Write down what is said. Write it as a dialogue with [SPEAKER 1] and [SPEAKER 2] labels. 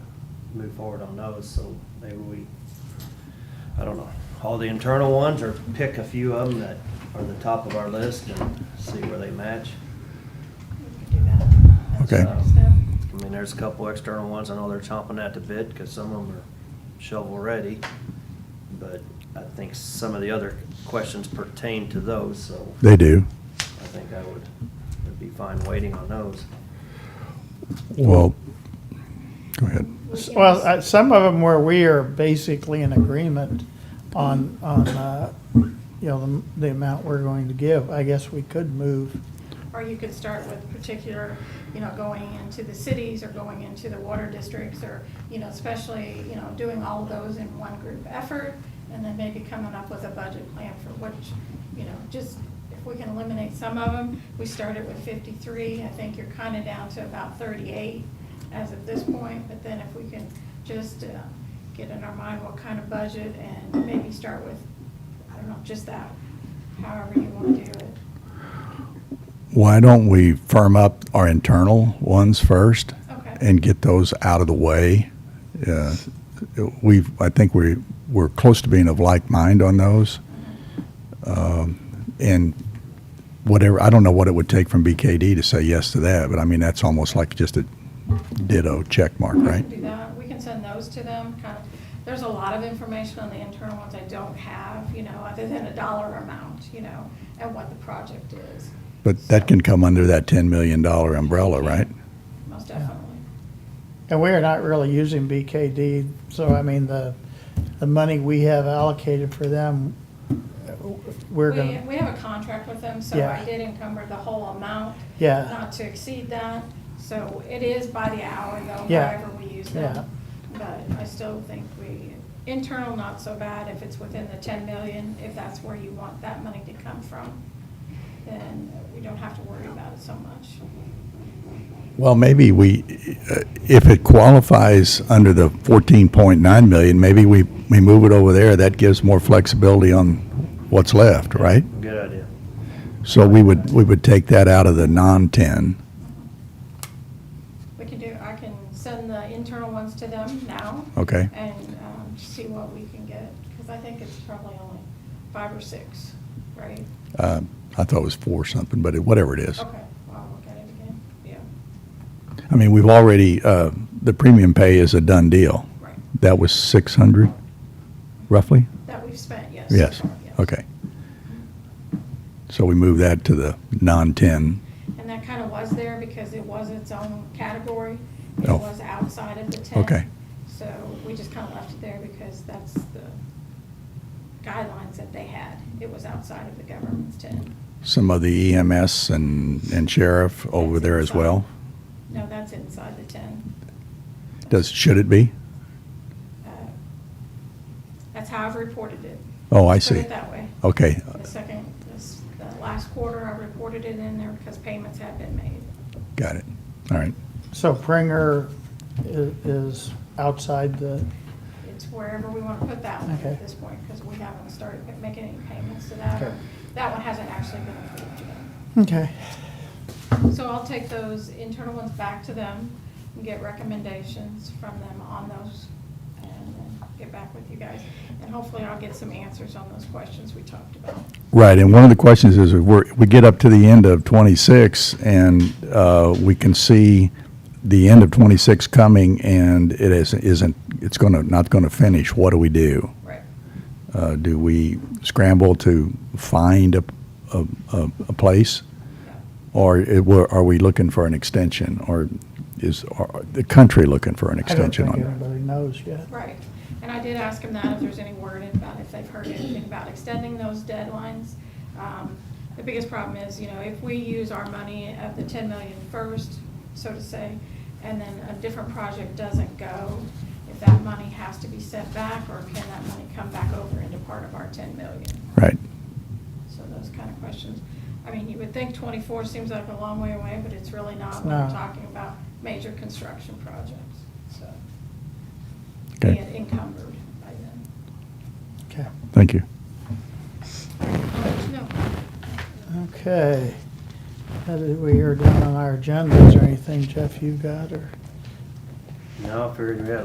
[SPEAKER 1] move forward on those, so maybe we, I don't know, all the internal ones or pick a few of them that are the top of our list and see where they match.
[SPEAKER 2] We could do that. That's
[SPEAKER 3] Okay.
[SPEAKER 2] what I was-
[SPEAKER 1] Um, I mean, there's a couple external ones, I know they're chomping at the bit, because some of them are shovel-ready, but I think some of the other questions pertain to those, so
[SPEAKER 3] They do.
[SPEAKER 1] I think I would, would be fine waiting on those.
[SPEAKER 3] Well, go ahead.
[SPEAKER 2] We can
[SPEAKER 4] Well,
[SPEAKER 2] just-
[SPEAKER 4] uh, some of them where we are basically in agreement on, on, uh, you know, the, the amount we're going to give, I guess we could move.
[SPEAKER 2] Or you could start with particular, you know, going into the cities or going into the water districts or, you know, especially, you know, doing all of those in one group effort and then maybe coming up with a budget plan for which, you know, just if we can eliminate some of them. We started with fifty-three, I think you're kind of down to about thirty-eight as of this point, but then if we can just uh, get in our mind what kind of budget and maybe start with, I don't know, just that, however you want to do it.
[SPEAKER 3] Why don't we firm up our internal ones first
[SPEAKER 2] Okay.
[SPEAKER 3] and get those out of the way? Uh, We've, I think we, we're close to being of like mind on those.
[SPEAKER 2] Uh-huh.
[SPEAKER 3] Um, And whatever, I don't know what it would take from BKD to say yes to that, but I mean, that's almost like just a ditto check mark,
[SPEAKER 2] We
[SPEAKER 3] right?
[SPEAKER 2] can do that, we can send those to them, kind of, there's a lot of information on the internal ones I don't have, you know, other than a dollar amount, you know, and what the project is.
[SPEAKER 3] But that can come under that $10 million umbrella, right?
[SPEAKER 2] Most definitely.
[SPEAKER 4] And we are not really using BKD, so I mean, the, the money we have allocated for them, uh, we're
[SPEAKER 2] We,
[SPEAKER 4] gonna,
[SPEAKER 2] we have a contract with them, so I
[SPEAKER 4] Yeah.
[SPEAKER 2] did encumber the whole amount,
[SPEAKER 4] yeah,
[SPEAKER 2] not to exceed that. So it is by the hour though,
[SPEAKER 4] Yeah.
[SPEAKER 2] however we use
[SPEAKER 4] yeah.
[SPEAKER 2] them. But I still think we, internal not so bad if it's within the ten million, if that's where you want that money to come from. Then we don't have to worry about it so much.
[SPEAKER 3] Well, maybe we, uh, if it qualifies under the 14.9 million, maybe we, we move it over there. That gives more flexibility on what's left, right?
[SPEAKER 1] Good idea.
[SPEAKER 3] So we would, we would take that out of the non-10.
[SPEAKER 2] We can do, I can send the internal ones to them now
[SPEAKER 3] Okay,
[SPEAKER 2] and um, see what we can get, because I think it's probably only five or six, right?
[SPEAKER 3] Uh, I thought it was four something, but it- whatever it is.
[SPEAKER 2] Okay, well, I'll look at it again, yeah,
[SPEAKER 3] I mean, we've already, uh, the premium pay is a done deal.
[SPEAKER 2] right.
[SPEAKER 3] That was 600 roughly?
[SPEAKER 2] That we've spent, yes. so
[SPEAKER 3] Yes,
[SPEAKER 2] far, yes. Mm-hmm.
[SPEAKER 3] okay. So we move that to the non-10.
[SPEAKER 2] And that kind of was there because it was its own category. It
[SPEAKER 3] Oh.
[SPEAKER 2] was outside of the ten.
[SPEAKER 3] Okay.
[SPEAKER 2] So we just kind of left it there because that's the guidelines that they had. It was outside of the government's ten.
[SPEAKER 3] Some of the EMS and, and sheriff over there as well?
[SPEAKER 2] No, that's inside the ten.
[SPEAKER 3] Does, should it be?
[SPEAKER 2] Uh, That's how I've reported it.
[SPEAKER 3] Oh, I
[SPEAKER 2] Put
[SPEAKER 3] see.
[SPEAKER 2] it that way.
[SPEAKER 3] Okay,
[SPEAKER 2] The second, this, the last quarter, I reported it in there because payments had been made.
[SPEAKER 3] got it. All right.
[SPEAKER 4] So Pringer i- is outside the,
[SPEAKER 2] It's wherever we want to put that one
[SPEAKER 4] Okay.
[SPEAKER 2] at this point because we haven't started making any payments to that. or-
[SPEAKER 4] Okay.
[SPEAKER 2] That one hasn't actually been approved yet.
[SPEAKER 4] okay,
[SPEAKER 2] So I'll take those internal ones back to them and get recommendations from them on those and then get back with you guys. And hopefully I'll get some answers on those questions we talked about.
[SPEAKER 3] Right, and one of the questions is, if we're, we get up to the end of twenty-six, and, uh, we can see the end of twenty-six coming, and it is, isn't, it's gonna, not gonna finish, what do we do?
[SPEAKER 2] Right.
[SPEAKER 3] Uh, do we scramble to find a, a, a, a place? Or it, were- are we looking for an extension, or is, are the country looking for an
[SPEAKER 4] I don't
[SPEAKER 3] extension
[SPEAKER 4] think
[SPEAKER 3] on that?
[SPEAKER 4] anybody knows yet.
[SPEAKER 2] Right, and I did ask him that, if there's any word about if they've heard anything about extending those deadlines. Um, The biggest problem is, you know, if we use our money of the ten million first, so to say, and then a different project doesn't go, if that money has to be sent back, or can that money come back over into part of our ten million?
[SPEAKER 3] Right,
[SPEAKER 2] So those kind of questions. I mean, you would think twenty-four seems like a long way away, but it's really not when we're
[SPEAKER 4] No.
[SPEAKER 2] talking about major construction projects, so.
[SPEAKER 3] Okay.
[SPEAKER 2] Being encumbered by then.
[SPEAKER 4] Okay.
[SPEAKER 3] thank you.
[SPEAKER 2] I'll let you know.
[SPEAKER 4] Okay. How did we hear down on our agenda? Is there anything, Jeff, you got, or?
[SPEAKER 1] Now, I figured we had